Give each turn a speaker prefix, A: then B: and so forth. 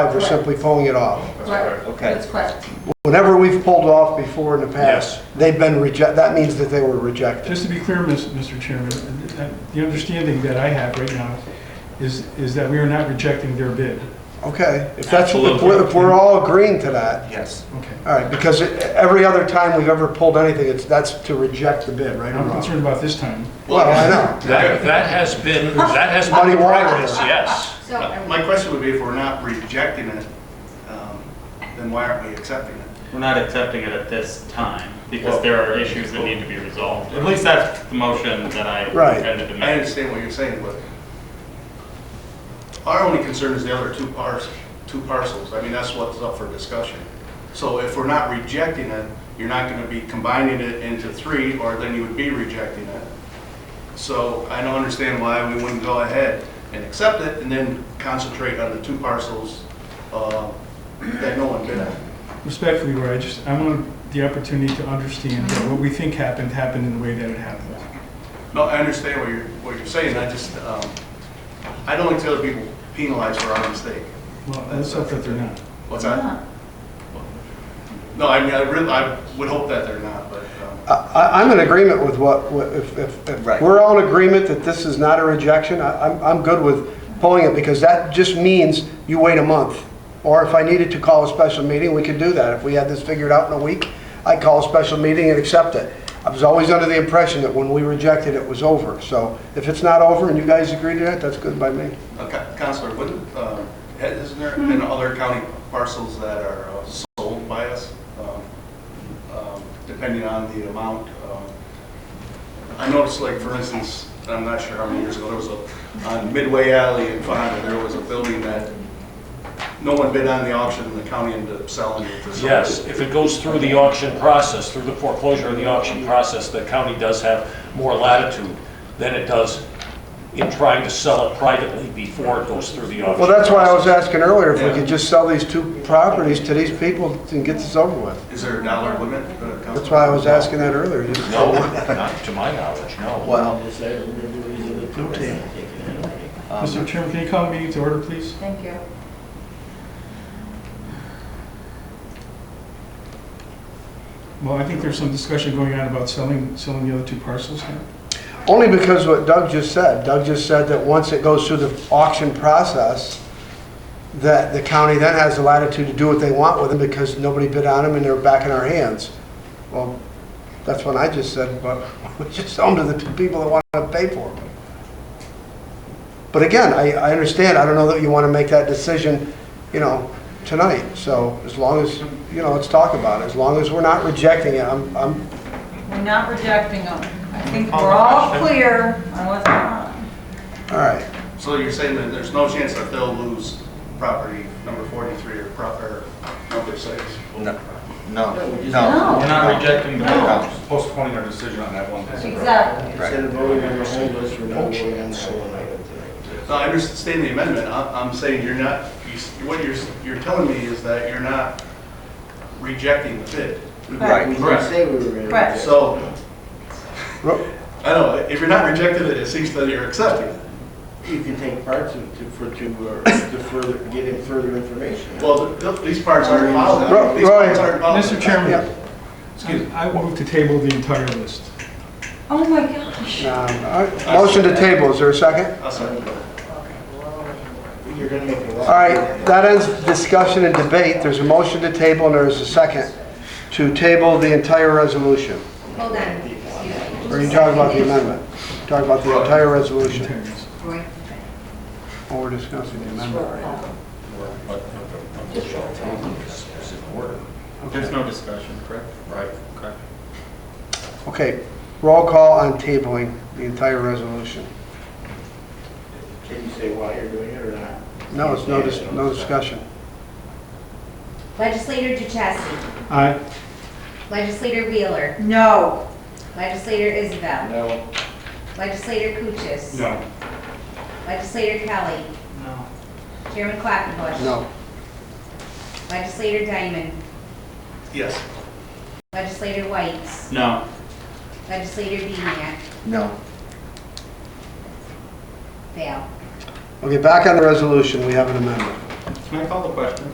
A: We're simply pulling it off.
B: Right,
C: Okay.
B: that's correct.
A: Whenever we've pulled off before in the past, they've been rejected, that means that they were rejected.
D: Just to be clear, Mis- Mr. Chairman, uh, the understanding that I have right now is, is that we are not rejecting their bid.
A: Okay, if that's, if
C: Absolutely.
A: we're if we're all agreeing to that,
C: Yes.
D: Okay.
A: all right, because every other time we've ever pulled anything, it's, that's to reject the bid, right? or
D: I'm
A: wrong?
D: concerned about this time.
A: Well, I know.
E: That, that has been, that has
A: Muddy
E: been
A: water.
E: practice, yes.
B: So are we-
F: My question would be, if we're not rejecting it, um, then why aren't we accepting it?
G: We're not accepting it at this time because there are issues that need to be resolved. At least that's the motion that I
A: Right.
G: intended to
F: I
G: make.
F: understand what you're saying, but our only concern is the other two parcels, two parcels. I mean, that's what's up for discussion. So if we're not rejecting it, you're not going to be combining it into three, or then you would be rejecting it. So I don't understand why we wouldn't go ahead and accept it and then concentrate on the two parcels uh, that no one bid on.
D: Respectfully, Roy, I just, I want the opportunity to understand that what we think happened, happened in the way that it happened.
F: No, I understand what you're, what you're saying, I just, um, I don't like to other people penalized for our mistake.
D: Well, that's not that they're not.
F: What's that?
B: Huh.
F: No, I mean, I really, I would hope that they're not, but, um,
A: I, I- I'm in agreement with what, what- if, if, if
C: Right.
A: we're all in agreement that this is not a rejection, I- I'm, I'm good with pulling it, because that just means you wait a month. Or if I needed to call a special meeting, we could do that. If we had this figured out in a week, I'd call a special meeting and accept it. I was always under the impression that when we rejected, it was over. So if it's not over and you guys agree to that, that's good by me.
F: uh, Coun- Counselor, wouldn't, um, isn't there been other county parcels that are uh, sold by us? um, um, Depending on the amount, um, I noticed, like, for instance, I'm not sure how many years ago, there was a, on Midway Alley in Fonda, there was a building that no one bid on the auction, the county ended up selling it to someone.
E: Yes, if it goes through the auction process, through the foreclosure of the auction process, the county does have more latitude than it does in trying to sell it privately before it goes through the auction.
A: Well, that's why I was
E: process.
A: asking earlier, if we could just sell these two properties to these people and get this over with.
F: Is there a dollar limit? uh, Counselor?
A: That's why I was asking that earlier. just-
E: No, not to my knowledge, no.
C: Well, um,
D: Mr. Chairman, can you call the meeting to order, please?
B: Thank you.
D: Well, I think there's some discussion going on about selling, selling the other two parcels now.
A: Only because what Doug just said. Doug just said that once it goes through the auction process, that the county then has the latitude to do what they want with them because nobody bid on them and they're back in our hands. Well, that's what I just said, but we just own to the people that want to pay for them. But again, I, I understand, I don't know that you want to make that decision, you know, tonight. So as long as, you know, let's talk about it. As long as we're not rejecting it, I'm, I'm,
H: We're not rejecting them. I think we're all clear on what's going on.
A: all right.
F: So you're saying that there's no chance that they'll lose property number 43 or prop, or number six?
C: no, no, no. We're
B: No.
C: not rejecting the
B: No.
C: bid.
I: postponing our decision on that one.
B: Exactly.
C: Right.
F: No, I understand the amendment, I- I'm saying you're not, you s- what you're, s- you're telling me is that you're not rejecting the bid.
C: Right.
H: Correct.
F: So,
A: Ro-
F: I don't know, if you're not rejecting it, it seems that you're accepting it.
J: You can take parts of, to, for, to, uh, to further, get in further information.
F: Well, th- these parts aren't
A: Ro-
F: involved, these
A: Roy.
F: parts aren't involved.
D: Mr.
A: Yeah.
D: Chairman,
F: Excuse me.
D: I I move to table the entire list.
B: Oh, my gosh.
A: Um, all right. Motion to table, is there a second?
F: I'll second that.
J: You're gonna make a lot.
A: All right, that ends discussion and debate. There's a motion to table and there is a second to table the entire resolution.
B: Hold on. Excuse me.
A: Or are you talking about the amendment? Talking about the entire resolution,
D: Terrence.
B: Roy.
A: or we're discussing the amendment?
G: There's no discussion, correct? Right. Okay.
A: Okay, roll call on tabling the entire resolution.
J: Can you say why you're doing it or not?
A: No, it's no, dis- no discussion.
K: Legislator Duchesny,
D: Aye.
K: Legislator Wheeler,
H: No.
K: Legislator Isabel,
J: No.
K: Legislator Cuchus.
D: No.
K: Legislator Kelly.
H: No.
K: Chairman Quackenbush.
A: No.
K: Legislator Diamond,
F: Yes.
K: Legislator White,
G: No.
K: Legislator Beniac,
C: No.
K: fail.
A: Okay, back on the resolution, we have an amendment.
F: Can I call the question?